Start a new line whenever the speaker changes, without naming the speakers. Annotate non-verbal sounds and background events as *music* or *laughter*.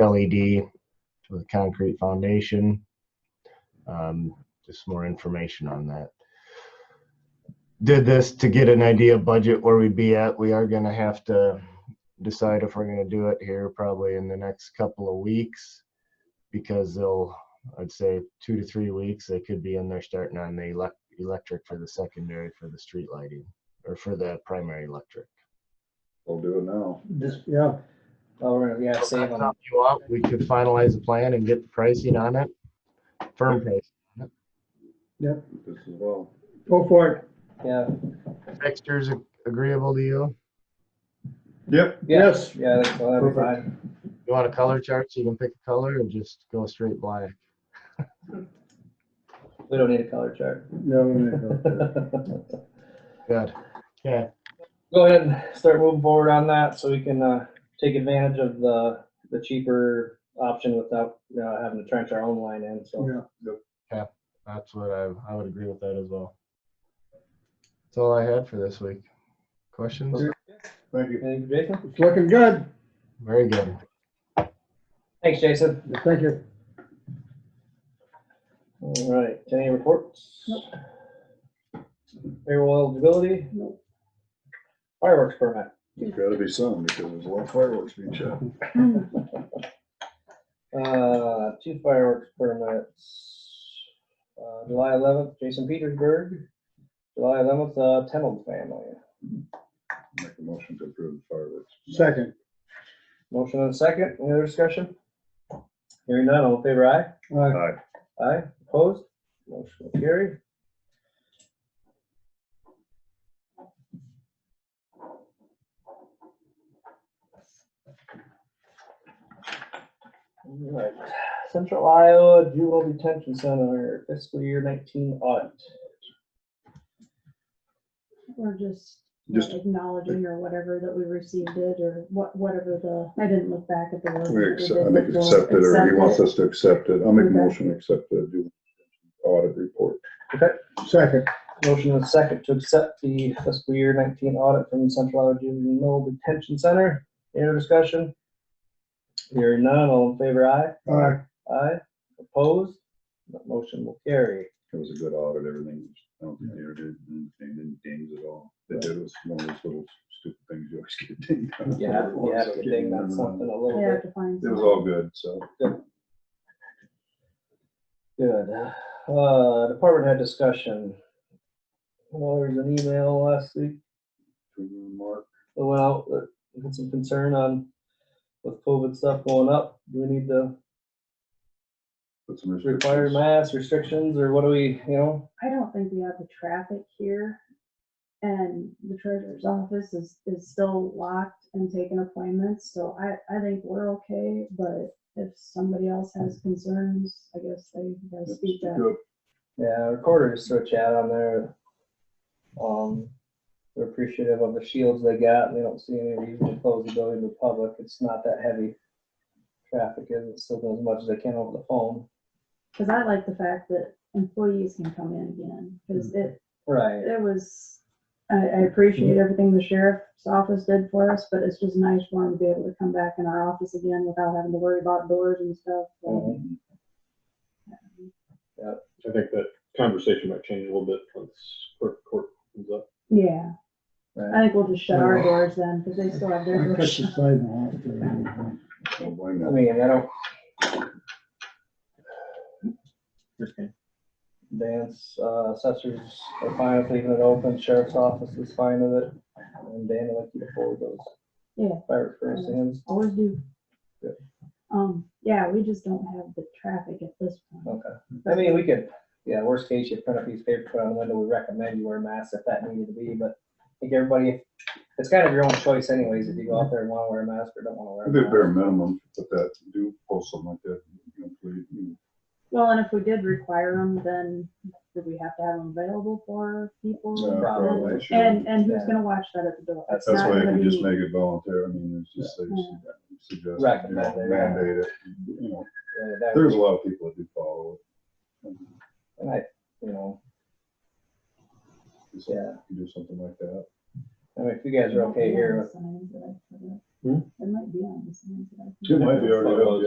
LED with a concrete foundation. Um, just more information on that. Did this to get an idea of budget where we'd be at. We are gonna have to decide if we're gonna do it here probably in the next couple of weeks. Because they'll, I'd say two to three weeks, they could be in there starting on the elec- electric for the secondary for the street lighting or for the primary electric.
We'll do it now.
This, yeah, or, Oh, yeah,
So
save
that's
them.
something you want, We could finalize the plan and get the pricing on it. Firm price,
This as well.
Go for it. Yeah,
fixtures ag- agreeable to you?
Yep.
yes, yeah, that's all, that'd be fine.
You want a color chart so you can pick a color and just go straight black?
We don't need a color chart.
Good. Okay,
*laughs* Go ahead and start moving forward on that so we can, uh, take advantage of the, the cheaper option without, uh, having to trench our own line in, so.
that's what I, I would agree with that as well. That's all I had for this week. Questions?
Thank you.
Thank you, Jason.
It's looking good.
Very good.
Thanks, Jason.
Thank you.
All right, any reports? Payroll eligibility?
Nope.
Fireworks permit.
There's gotta be some because there's a lot of fireworks being shot.
Uh, two fireworks permits. Uh, July eleventh, Jason Petersburg. July eleventh, uh, Tenold family.
Make a motion to approve the fireworks.
Second.
Motion and a second, any other discussion? Hearing none, all in favor, aye?
Aye.
Aye.
Aye, opposed? Motion will carry. Alright, Central Iowa Juvenile Detention Center fiscal year nineteen audit.
Or just you know,
Just,
acknowledging or whatever that we received it or what, whatever the, I didn't look back at the word.
we accept, I make accept it or he wants us to accept it. I'll make a motion, to accept the due audit report.
Second.
Motion and a second to accept the fiscal year nineteen audit from Central Iowa Juvenile Detention Center. Any other discussion? Hearing none, all in favor, aye?
Aye.
Aye, opposed, that motion will carry.
It was a good audit, everything. I don't think they ever did anything dings at all. They did, it was one of those little stupid things you always get dinged on.
Yeah, yeah, good thing that's something a little
I have
bit
to find.
It was
some.
all good, so.
good. Uh, department head discussion. Well, there was an email last week
Mark,
that went out, that had some concern on with COVID stuff going up. Do we need to
put some restrictions.
require mask restrictions or what do we, you know?
I don't think we have the traffic here. And the treasurer's office is, is still locked and taking appointments, so I, I think we're okay, but if somebody else has concerns, I guess they gotta
Yep,
speak up.
good.
Yeah, recorders throw chat on there. Um, they're appreciative of the shields they got and they don't see any reason to close the building to the public. It's not that heavy. Traffic isn't still doing as much as they can over the phone.
Cause I like the fact that employees can come in again, cause it,
Right.
it was, I, I appreciate everything the sheriff's office did for us, but it's just nice for him to be able to come back in our office again without having to worry about doors and stuff. so.
I think that conversation might change a little bit once court, court comes up.
Yeah, I
Right.
think we'll just shut our doors then, because they still have their
I cut
doors.
the
shut.
sidewalk there.
Don't blame
I
them.
mean, I don't. Dance, uh, assessors are fine with leaving it open, sheriff's office is fine with it, and Dan, I'd like you to forward those.
Yeah.
Fire first hands,
*laughs* Always do.
Yeah.
Um, yeah, we just don't have the traffic at this point.
okay. I mean, we could, yeah, worst case, you print a piece of paper, put it on the window, we recommend you wear a mask if that needed to be, but I think everybody, it's kind of your own choice anyways, if you go out there and wanna wear a mask or don't wanna
I think
wear
bare
a mask.
minimum, but that do post something like that, you know, please, you
Well, and if we did require them, then would we have to have them available for people?
know,
Right.
probably should.
Mm-hmm. And, and who's
Yeah.
gonna watch that at the door?
That's-
It's
That's
not
why you
gonna
can just
be-
make it voluntary, I mean, it's just, they
Yeah.
suggest, you
Recommend
know,
it, yeah.
mandate it, you know,
Yeah, that-
there's a lot of people that do follow it.
And I, you know,
Just-
yeah,
you Do something like that.
I mean, if you guys are okay here with
Signs that I put up.
Hmm?
It might be on the signs that I put up.
It might be already, up,